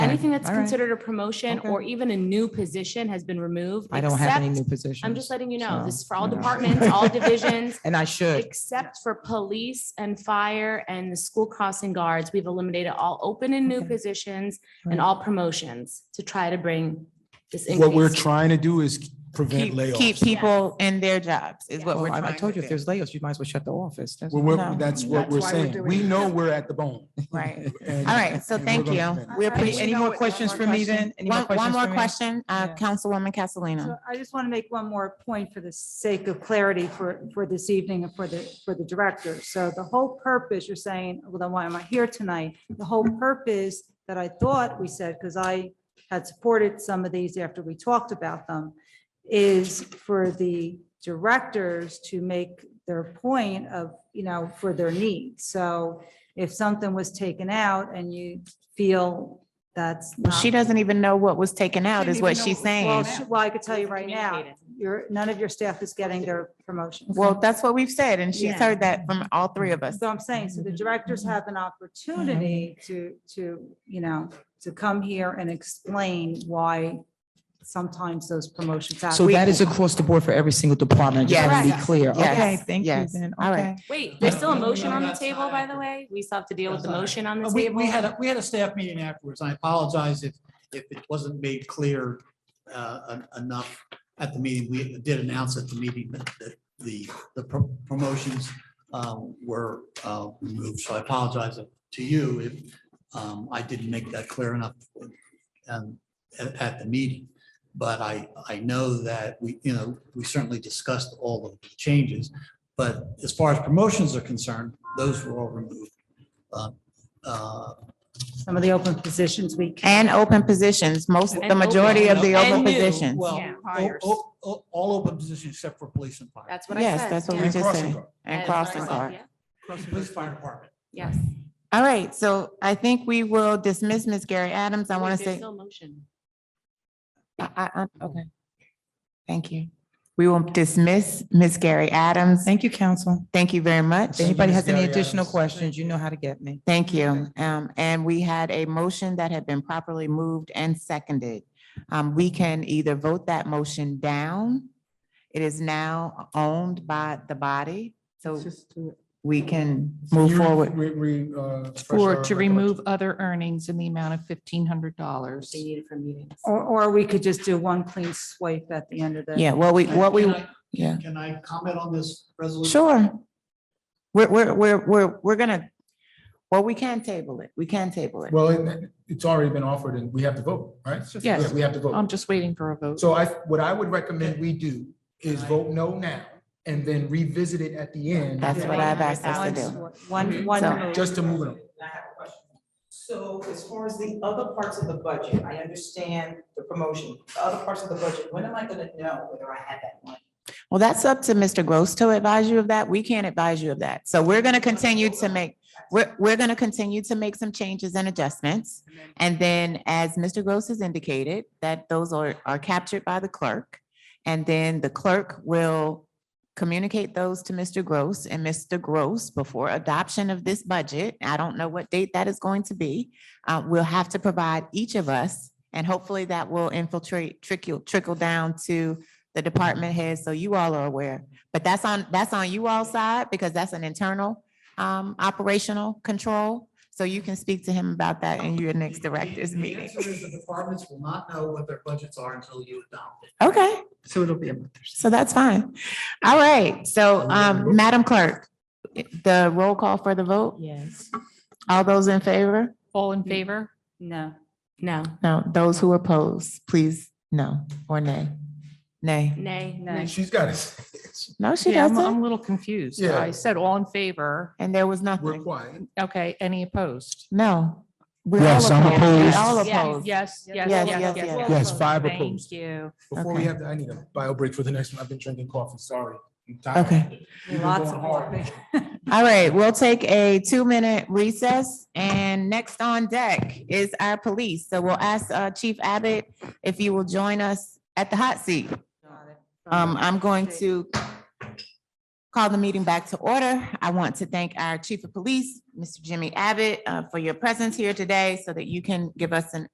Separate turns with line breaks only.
Anything that's
all right.
considered a promotion
Okay.
or even a new position has been removed.
I don't have any
except-
new positions.
I'm just letting you know,
so,
this is for all
you know.
departments, all divisions,
And I should.
except for police and fire and the school crossing guards. We've eliminated all open and new
Okay.
positions and
Right.
all promotions to try to bring this increase.
What we're trying to do is prevent
Keep, keep
layoffs.
people in their jobs is what
Well,
we're
I I
trying to
told you, if
do.
there's layoffs, you might as well shut the office. That's-
We're- we're-
No.
That's what
That's
we're
why we're
saying.
doing
We
it.
know we're at the bone.
Right.
and-
All right, so
and we're
thank
gonna
you.
prevent it.
We appreciate, any
You know
more
what,
questions
one
for
more
me then? Any more
One, one
questions
more
for me?
question, uh,
Yeah.
Councilwoman Castellino.
So I just want to make one more point for the sake of clarity for, for this evening and for the, for the director. So the whole purpose, you're saying, well, then why am I here tonight? The whole purpose that I thought we said, because I had supported some of these after we talked about them, is for the directors to make their point of, you know, for their needs. So if something was taken out and you feel that's
Well,
not.
um,
She doesn't even know what was taken out
Didn't
is what
even know
she's
what Well,
saying.
sh- Well, I could tell you right now,
Communicated.
your, none of your staff is getting their promotions.
Well, that's what we've said, and she's
Yeah.
heard that from all three of us.
So I'm saying, so the directors have an opportunity to, to, you know, to come here and explain why sometimes those promotions happen.
So that is across the board for every single department. I just want to be
Yes.
clear.
Yes.
Okay, thank you
Yes.
then.
All right.
Okay.
Wait, there's still a motion on the
That's not
table, by the
accurate.
way. We still have to deal with
That's
the
not
motion on the
We, we
table.
had, a we had a staff meeting afterwards. and I apologize if, if it wasn't made clear uh, en- enough at the meeting. We did announce at the meeting that that the, the pro- promotions uh, were uh, removed. So I apologize to you if um, I didn't make that clear enough um, at, at the meeting. But I, I know that we, you know, we certainly discussed all of the changes. But as far as promotions are concerned, those were all removed. Uh, uh,
Some of the open positions we can.
And open positions, most,
And
the majority
open.
of the
And
open
new,
positions.
Well, oh,
Yeah.
o- o- o- all open positions except for police and fire.
That's what I said.
Yes, that's what we
Yeah.
And
just
crossing
said.
guard.
And
As
crossing
I said,
guard.
yeah.
Police fire department.
Yes.
All right, so I think we will dismiss Ms. Gary Adams. I
Wait,
want to
there's
say,
Still a motion.
I, I, I- okay. Thank you. We will dismiss Ms. Gary Adams.
Thank you, council.
Thank you very
If
much.
anybody has any
Gary
additional
Adams.
questions, you know how to get me.
Thank you. Um, and we had a motion that had been properly moved and seconded. Um, we can either vote that motion down. It is now owned by the body, so we can move
You-
forward.
we- we, uh, express
Or
our
to remove other earnings in the amount of fifteen hundred dollars.
They need it for meetings.
Or, or we could just do one clean swipe at the end of the.
Yeah, what we, what we,
Can I-
yeah,
Can I comment on this resolution?
sure. We're, we're, we're, we're, we're gonna, well, we can table it. We can table it.
Well, it- it's already been offered and we have to vote, right?
Yes.
Yeah, We have to vote.
Um,
I'm just waiting for a vote.
So I, what I would recommend we do is vote no now and then revisit it at the end.
That's what I've asked us to
One,
do.
swi- one, one.
So-
move.
Just to move it. on.
I have a question. So as far as the other parts of the budget, I understand the promotion, the other parts of the budget, when am I gonna know whether I have that money?
Well, that's up to Mr. Gross to advise you of that. We can't advise you of that. So we're gonna continue to make, we're, we're gonna continue to make some changes and adjustments. And then, as Mr. Gross has indicated, that those are, are captured by the clerk. And then the clerk will communicate those to Mr. Gross and Mr. Gross before adoption of this budget. I don't know what date that is going to be. Uh, we'll have to provide each of us, and hopefully that will infiltrate, trickle, trickle down to the department heads, so you all are aware. But that's on, that's on you all side, because that's an internal um operational control. So you can speak to him about that in your next
The- the-
directors
the
meeting.
answer is The departments will not know what their budgets are until you adopt it.
Okay,
So it'll be a month.
so that's fine. All right, so um Madam Clerk, the roll call for the vote,
Yes.
all those in favor?
All in favor?
No.
No,
No, those who oppose, please, no or nay. Nay.
nay,
No.
nay.
She's got it.
No, she
Yeah, I'm, I'm
doesn't.
a little confused.
Yeah.
I said all in favor.
And there was
We're
nothing.
quiet.
Okay, any opposed?
No. we all
Yes, I'm
We
opposed.
all
Yes.
opposed.
Yes, yes,
Yes,
yes,
yes,
yes.
yes.
Yes, five
Thank
opposed.
you.
Before we
Okay.
have, to- I need a bio break for the next one. I've been drinking coffee, sorry. I'm tired.
Okay.
We've been
Lots
going
of
hard.
work.
All right, we'll take a two-minute recess, and next on deck is our police. So we'll ask uh, Chief Abbott if you will join us at the hot seat. Um, I'm going to call the meeting back to order. I want to thank our Chief of Police, Mr. Jimmy Abbott, uh, for your presence here today so that you can give us an